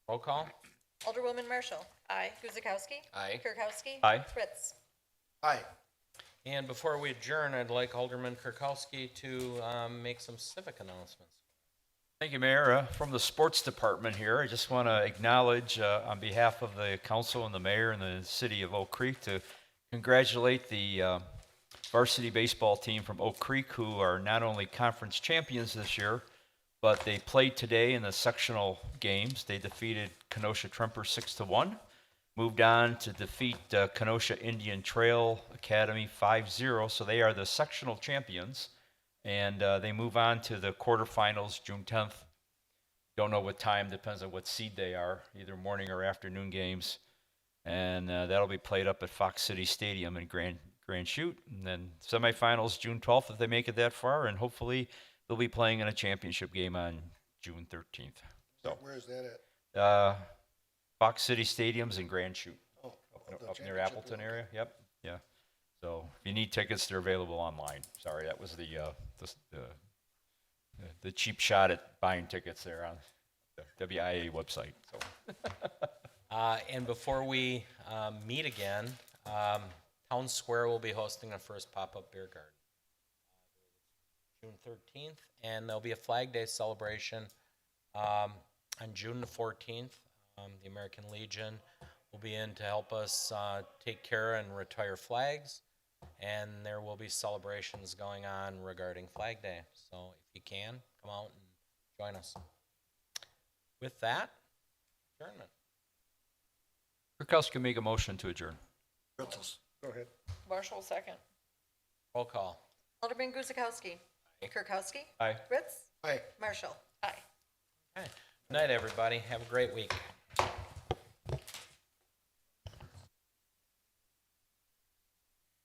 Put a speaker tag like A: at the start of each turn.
A: Roll call?
B: Alderwoman Marshall. Aye. Guzekowski.
C: Aye.
B: Kirkowski.
A: Aye.
B: Fritz.
D: Aye.
A: And before we adjourn, I'd like Alderman Kirkowski to um, make some civic announcements.
E: Thank you, Mayor. Uh, From the Sports Department here, I just want to acknowledge uh, on behalf of the council and the mayor and the city of Oak Creek to congratulate the uh, varsity baseball team from Oak Creek who are not only conference champions this year, but they played today in the sectional games. They defeated Kenosha Tremper 6 to 1, moved on to defeat uh, Kenosha Indian Trail Academy 5-0, so they are the sectional champions and uh, they move on to the quarterfinals June 10th. Don't know what time, depends on what seed they are, either morning or afternoon games. And uh, that'll be played up at Fox City Stadium in Grand Grand Chute. And then semifinals June 12th if they make it that far, and hopefully they'll be playing in a championship game on June 13th. So
D: Where is that at?
E: uh, Fox City Stadium's in Grand Chute,
D: Oh,
E: up-
D: the
E: up near
D: championship
E: Appleton
D: game.
E: area. Yep, yeah. So if you need tickets, they're available online. Sorry, that was the uh, the, s- the the cheap shot at buying tickets there on the WIA website. So
A: Uh, And before we um, meet again, um, Town Square will be hosting a first pop-up beer garden. Uh, June 13th, and there'll be a Flag Day celebration um, on June the 14th. Um, The American Legion will be in to help us uh, take care and retire flags, and there will be celebrations going on regarding Flag Day. So if you can, come out and join us. With that, adjournment.
E: Kirkowski make a motion to adjourn.
D: Pretzels. Go ahead.
F: Marshall, second.
A: Roll call.
B: Alderman Guzekowski. Kirkowski.
E: Aye.
B: Fritz.
D: Aye.
B: Marshall.
F: Aye.
A: Okay. Good night, everybody. Have a great week.